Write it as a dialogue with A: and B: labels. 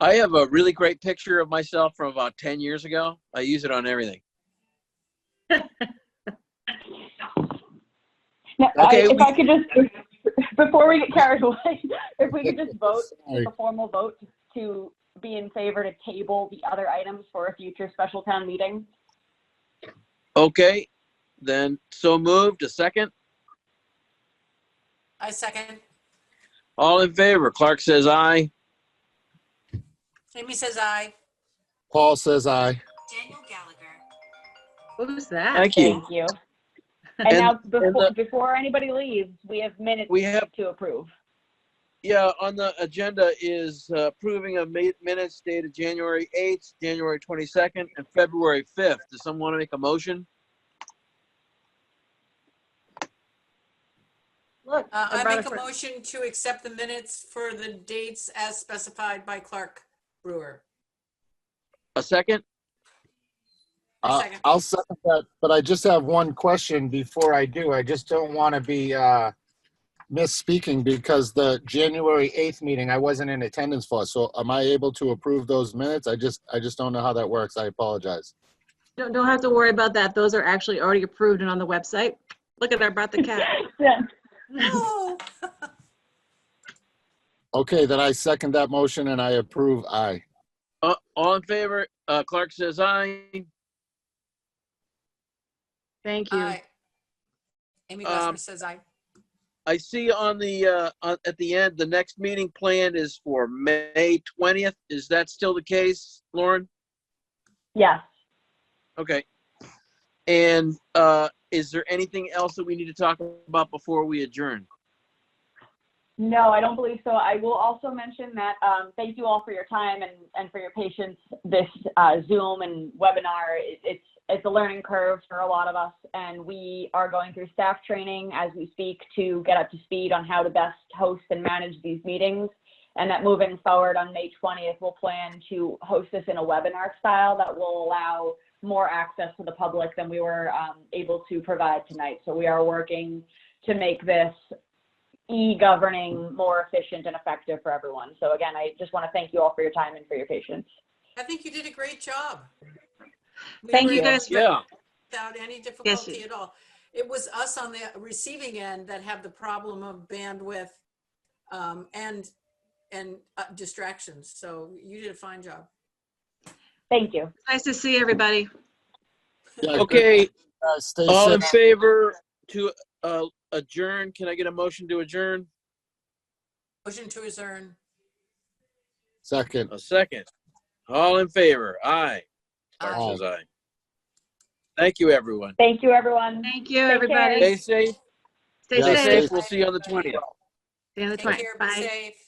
A: I have a really great picture of myself from about 10 years ago. I use it on everything.
B: Now, I-
A: Okay,
B: If
A: we-
B: I could just, before we get carried away, if we could just vote,
C: Sorry.
B: a formal vote to be in favor to table the other items for a future special town meeting.
A: Okay, then so moved. A second.
D: I second.
A: All in favor? Clark says aye.
D: Amy says aye.
C: Paul says aye.
D: Daniel Gallagher.
E: What was that?
A: Thank you.
B: Thank you.
A: And-
B: And now, before,
A: the-
B: before anybody leaves, we have minutes
A: We have,
B: to approve.
A: yeah, on the agenda is uh, approving of ma- minutes dated January 8th, January 22nd, and February 5th. Does someone want to make a motion?
E: Look,
D: Uh,
E: I
D: I
E: brought
D: make a
E: friend.
D: motion to accept the minutes for the dates as specified by Clark Brewer.
A: A second?
C: Uh,
D: Second.
C: I'll second that, but I just have one question before I do. I just don't want to be uh, misspeaking because the January 8th meeting, I wasn't in attendance for. So am I able to approve those minutes? I just, I just don't know how that works. I apologize.
E: Don't, don't have to worry about that. Those are actually already approved and on the website. Look at, I brought the cat.
B: Yeah.
D: Oh,
C: Okay, then I second that motion and I approve aye.
A: Uh, All in favor? Uh, Clark says aye.
E: Thank you.
D: aye. Amy
A: Um,
D: Glassman says aye.
A: I see on the, uh, on- at the end, the next meeting planned is for May 20th. Is that still the case, Lauren?
B: Yes.
A: Okay. And uh, is there anything else that we need to talk about before we adjourn?
B: No, I don't believe so. I will also mention that, um, thank you all for your time and, and for your patience. This, uh, Zoom and webinar, it- it's, it's a learning curve for a lot of us. And we are going through staff training as we speak to get up to speed on how to best host and manage these meetings. And that moving forward on May 20th, we'll plan to host this in a webinar style that will allow more access to the public than we were, um, able to provide tonight. So we are working to make this e-governing more efficient and effective for everyone. So again, I just want to thank you all for your time and for your patience.
D: I think you did a great job. We
E: Thank
D: were
E: you
D: able
E: guys
D: to-
E: for,
A: Yeah,
D: without any difficulty at all. It was us on the receiving end that had the problem of bandwidth um, and, and uh, distractions. So you did a fine job.
B: Thank you.
E: nice to see everybody.
C: Yeah, good.
A: okay, Um,
C: Guys, Stay
A: all in
C: safe.
A: favor to uh, adjourn, can I get a motion to adjourn?
D: Motion to adjourn.
C: Second.
A: A second. All in favor, aye.
C: Aye.
A: Clark says aye. Thank you, everyone.
B: Thank you, everyone.
E: Thank you,
B: care.
E: everybody.
A: Stay safe,
E: Stay
C: Yeah,
A: stay
E: safe.
A: safe, we'll see you on the 20th.
E: Stay on the
D: Take
E: twine.
D: care, be
E: Bye.
D: safe.